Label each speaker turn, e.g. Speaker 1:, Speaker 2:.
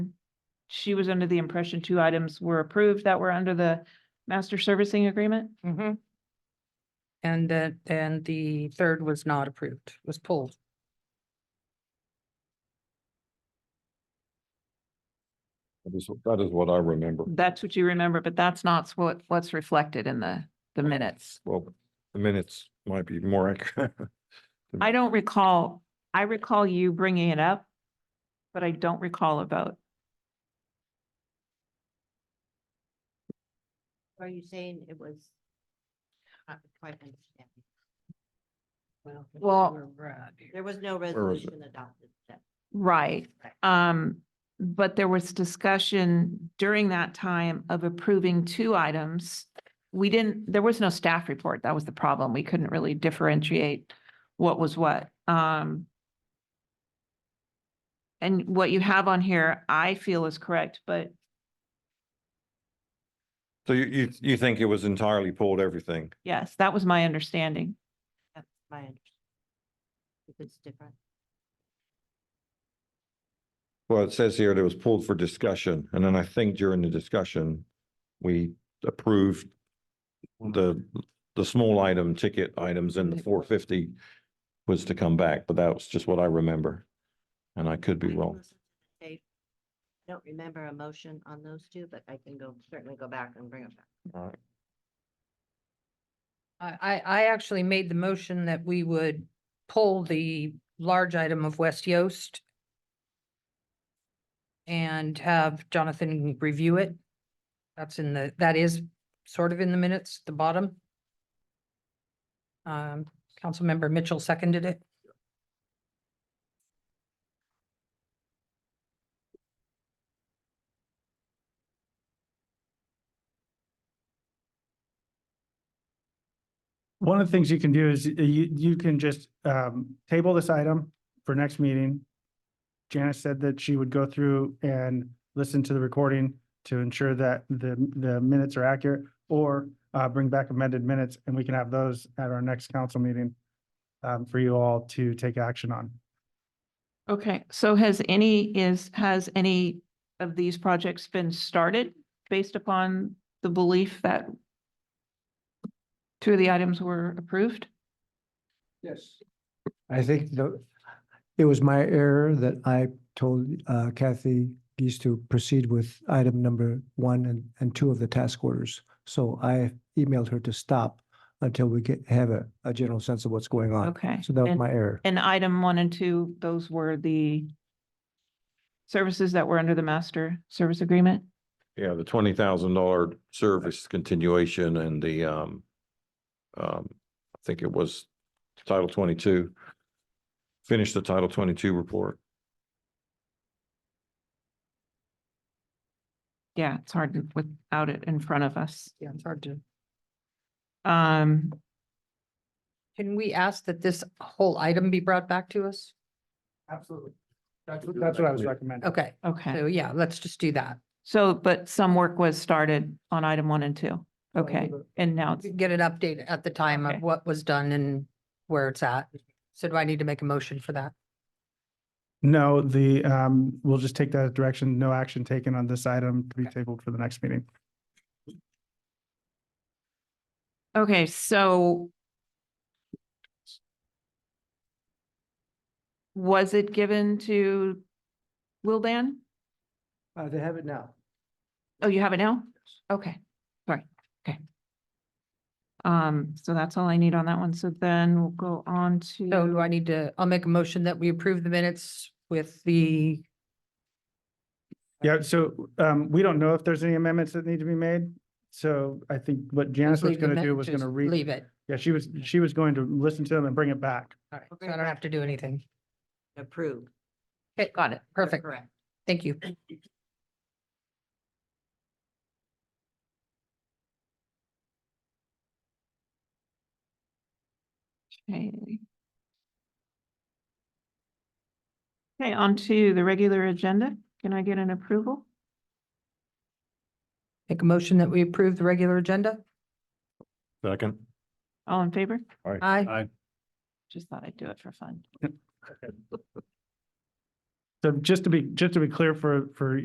Speaker 1: she was under the impression two items were approved that were under the master servicing agreement.
Speaker 2: Mhm. And that, and the third was not approved, was pulled.
Speaker 3: That is, that is what I remember.
Speaker 1: That's what you remember, but that's not what, what's reflected in the, the minutes.
Speaker 3: Well, the minutes might be more accurate.
Speaker 1: I don't recall, I recall you bringing it up, but I don't recall a vote.
Speaker 4: Are you saying it was? not Quite understanding.
Speaker 1: Well-
Speaker 4: There was no
Speaker 3: was it?
Speaker 4: resolution adopted. that-
Speaker 1: Right. Um, but there was discussion during that time of approving two items. We didn't, there was no staff report. That was the problem. We couldn't really differentiate what was what. Um, and what you have on here, I feel is correct, but
Speaker 3: So you, you, you think it was entirely pulled everything?
Speaker 1: yes, that was my understanding.
Speaker 4: That's my understanding. If it's different.
Speaker 3: Well, it says here that it was pulled for discussion, and then I think during the discussion, we approved the, the small item ticket items and the four fifty was to come back, but that was just what I remember. And I could be
Speaker 4: I
Speaker 3: wrong.
Speaker 4: wasn't at the tape. I Don't remember a motion on those two, but I can go, certainly go back and bring it back.
Speaker 2: I, I, I actually made the motion that we would pull the large item of West Yost and have Jonathan review it. That's in the, that is sort of in the minutes, the bottom. Um, Councilmember Mitchell seconded it.
Speaker 5: One of the things you can do is uh, you, you can just um, table this item for next meeting. Janice said that she would go through and listen to the recording to ensure that the, the minutes are accurate or uh, bring back amended minutes and we can have those at our next council meeting um, for you all to take action on.
Speaker 1: Okay, so has any is, has any of these projects been started based upon the belief that two of the items were approved?
Speaker 6: Yes. I think the, it was my error that I told uh, Kathy Geese to proceed with item number one and, and two of the task orders. So I emailed her to stop until we get, have a, a general sense of what's going on.
Speaker 1: Okay.
Speaker 6: So that was
Speaker 1: And-
Speaker 6: my error.
Speaker 1: And item one and two, those were the services that were under the master service agreement?
Speaker 3: Yeah, the twenty thousand dollar service continuation and the, um, um, I think it was Title twenty-two. Finish the Title twenty-two report.
Speaker 1: Yeah, it's hard to- without it in front of us.
Speaker 2: Yeah, it's hard to.
Speaker 1: Um,
Speaker 2: Can we ask that this whole item be brought back to us?
Speaker 5: Absolutely. That's, that's what I was recommending.
Speaker 2: Okay,
Speaker 1: okay,
Speaker 2: so yeah, let's just do that.
Speaker 1: so, but some work was started on item one and two. Okay, and now it's,
Speaker 2: Get an update at the time
Speaker 1: Okay.
Speaker 2: of what was done and where it's at. So do I need to make a motion for that?
Speaker 5: No, the, um, we'll just take that as direction. No action taken on this item to be tabled for the next meeting.
Speaker 1: okay, so was it given to Wildan?
Speaker 6: Uh, They have it now.
Speaker 1: Oh, you have it now? Okay, sorry, okay. Um, so that's all I need on that one. So then we'll go on
Speaker 2: So
Speaker 1: to,
Speaker 2: do I need to, I'll make a motion that we approve the minutes with the,
Speaker 5: Yeah, so um, we don't know if there's any amendments that need to be made. So I think what Janice was
Speaker 2: leave the
Speaker 5: gonna do
Speaker 2: min-
Speaker 5: was
Speaker 2: just
Speaker 5: gonna read,
Speaker 2: Leave it.
Speaker 5: yeah, she was, she was going to listen to them and bring it back.
Speaker 2: All right, so I don't have to do anything.
Speaker 4: Approved.
Speaker 2: Okay, got it. Perfect.
Speaker 4: Correct.
Speaker 2: Thank you.
Speaker 1: okay. Okay, on to the regular agenda. Can I get an approval?
Speaker 2: Make a motion that we approve the regular agenda?
Speaker 3: Second.
Speaker 1: All in favor?
Speaker 2: Aye.
Speaker 1: Just thought I'd do it for fun.
Speaker 5: So just to be, just to be clear for, for